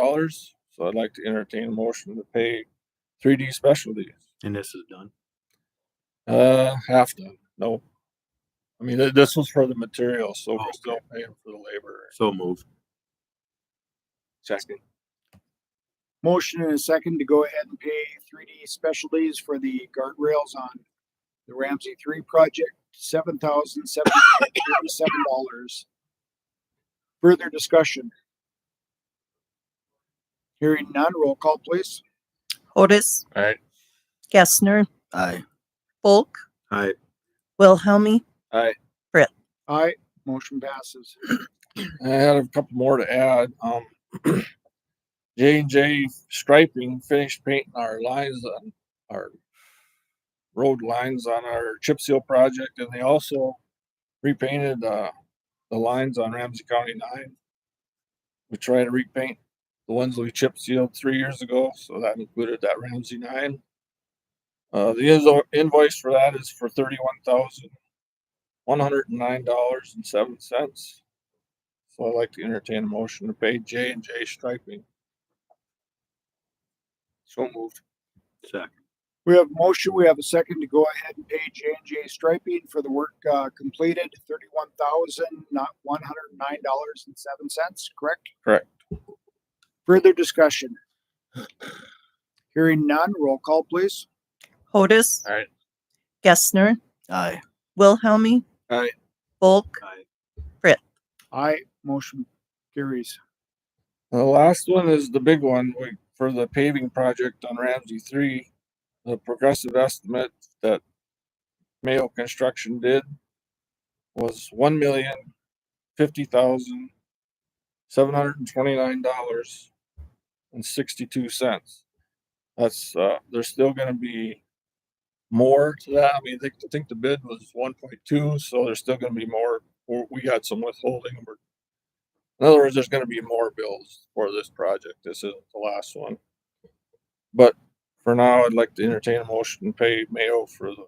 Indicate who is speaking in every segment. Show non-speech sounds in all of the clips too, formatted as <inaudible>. Speaker 1: dollars. So I'd like to entertain a motion to pay three D specialties.
Speaker 2: And this is done.
Speaker 1: Uh, half done. No. I mean, th- this was for the material, so we're
Speaker 2: Oh, Okay.
Speaker 1: still paying for the labor.
Speaker 2: So moved.
Speaker 1: Second.
Speaker 3: Motion and a second to go ahead and pay three D specialties for the guardrails on the Ramsey three project, seven thousand seven hundred thirty-seven dollars. Further discussion? Hearing none, roll call please.
Speaker 4: Otis,
Speaker 1: Alright.
Speaker 4: Gessner,
Speaker 2: Aye.
Speaker 4: Bulk,
Speaker 2: Aye.
Speaker 4: Wilhelmie.
Speaker 3: Aye, motion passes.
Speaker 1: I had a couple more to add. Um, <clears throat> J and J Striping finished painting our lines on our road lines on our chip seal project, and they also repainted uh, the lines on Ramsey County Nine. We tried to repaint the ones we chip sealed three years ago, so that included that Ramsey Nine. Uh, the invo- invoice for that is for thirty-one thousand one hundred and nine dollars and seven cents. So I'd like to entertain a motion to pay J and J striping. So moved.
Speaker 2: Second.
Speaker 3: We have motion, we have a second to go ahead and pay J and J Striping for the work uh, completed, thirty-one thousand, not one hundred and nine dollars and seven cents, correct?
Speaker 1: Correct.
Speaker 3: Further discussion? Hearing none, roll call please.
Speaker 4: Otis.
Speaker 1: Aye.
Speaker 4: Gessner,
Speaker 2: Aye.
Speaker 4: Wilhelmie.
Speaker 1: Aye.
Speaker 4: Bulk,
Speaker 2: Aye.
Speaker 3: Aye, motion carries.
Speaker 1: The last one is the big one we- for the paving project on Ramsey three. The progressive estimate that Mayo Construction did was one million fifty thousand seven hundred and twenty-nine dollars and sixty-two cents. That's, uh, there's still gonna be more to that. I mean, I think, I think the bid was one point two, so there's still gonna be more. We- We got some withholding. We're in other words, there's gonna be more bills for this project. This isn't the last one. But for now, I'd like to entertain a motion to pay Mayo for the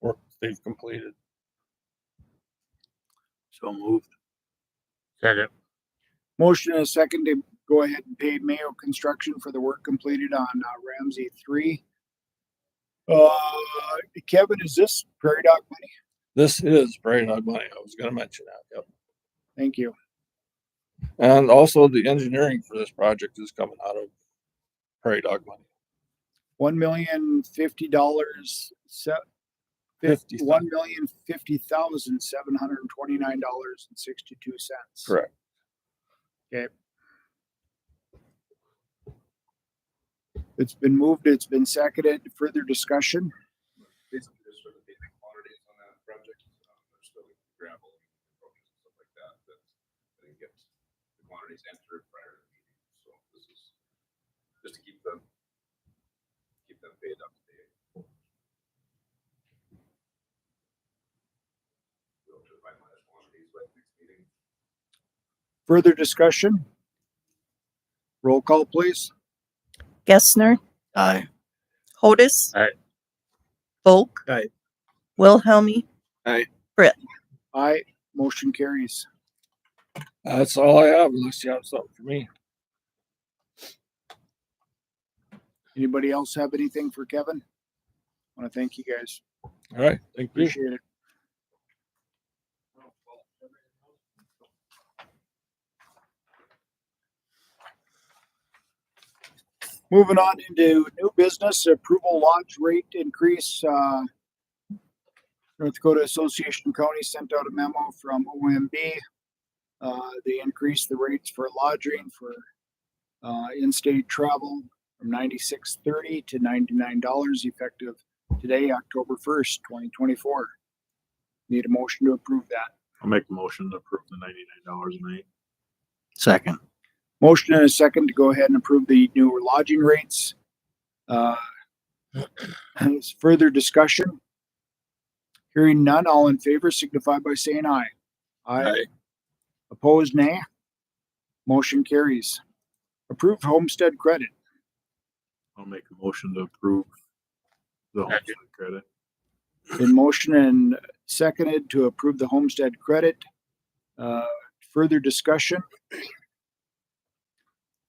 Speaker 1: work they've completed.
Speaker 2: So moved.
Speaker 1: Second.
Speaker 3: Motion and a second to go ahead and pay Mayo Construction for the work completed on uh, Ramsey three. Uh, Kevin, is this Prairie Dog money?
Speaker 1: This is Prairie Dog money. I was gonna mention that, yep.
Speaker 3: Thank you.
Speaker 1: And also the engineering for this project is coming out of Prairie Dog money.
Speaker 3: one million fifty dollars
Speaker 1: Fifty thou-
Speaker 3: one million fifty thousand seven hundred and twenty nine dollars and sixty two cents.
Speaker 1: Correct.
Speaker 3: Okay. It's been moved, it's been seconded, further discussion,
Speaker 5: basically just sort of paving quantities on that project. Um, There's still gravel and roads and stuff like that, that they didn't get the quantities entered prior to the meeting. So this is just to keep them, keep them paid up to date. We'll just finalize quantities by next meeting.
Speaker 3: further discussion. Roll call, please.
Speaker 4: Gessner,
Speaker 2: Aye.
Speaker 4: Otis.
Speaker 1: Aye.
Speaker 4: Bulk.
Speaker 2: Aye.
Speaker 4: Wilhelmie.
Speaker 3: Aye, motion carries.
Speaker 1: That's all I have unless you have something for me.
Speaker 3: Anybody else have anything for Kevin? I want to thank you guys.
Speaker 1: All right, thank you.
Speaker 3: Appreciate it. Moving on into new business approval lodge rate increase, uh, North Dakota Association of Counties sent out a memo from OMB. Uh, they increased the rates for lodging for, uh, in-state travel from ninety-six thirty to ninety-nine dollars effective today, October first, twenty twenty-four. Need a motion to approve that.
Speaker 2: I'll make a motion to approve the ninety-nine dollars a night. Second.
Speaker 3: Motion and a second to go ahead and approve the new lodging rates. Uh, and it's Further discussion? Hearing none, all in favor signify by saying aye.
Speaker 1: Aye.
Speaker 3: Opposed, nay. Motion carries. Approved homestead credit.
Speaker 2: I'll make a motion to approve the homestead credit.
Speaker 3: Been motion and seconded to approve the homestead credit. Uh, Further discussion?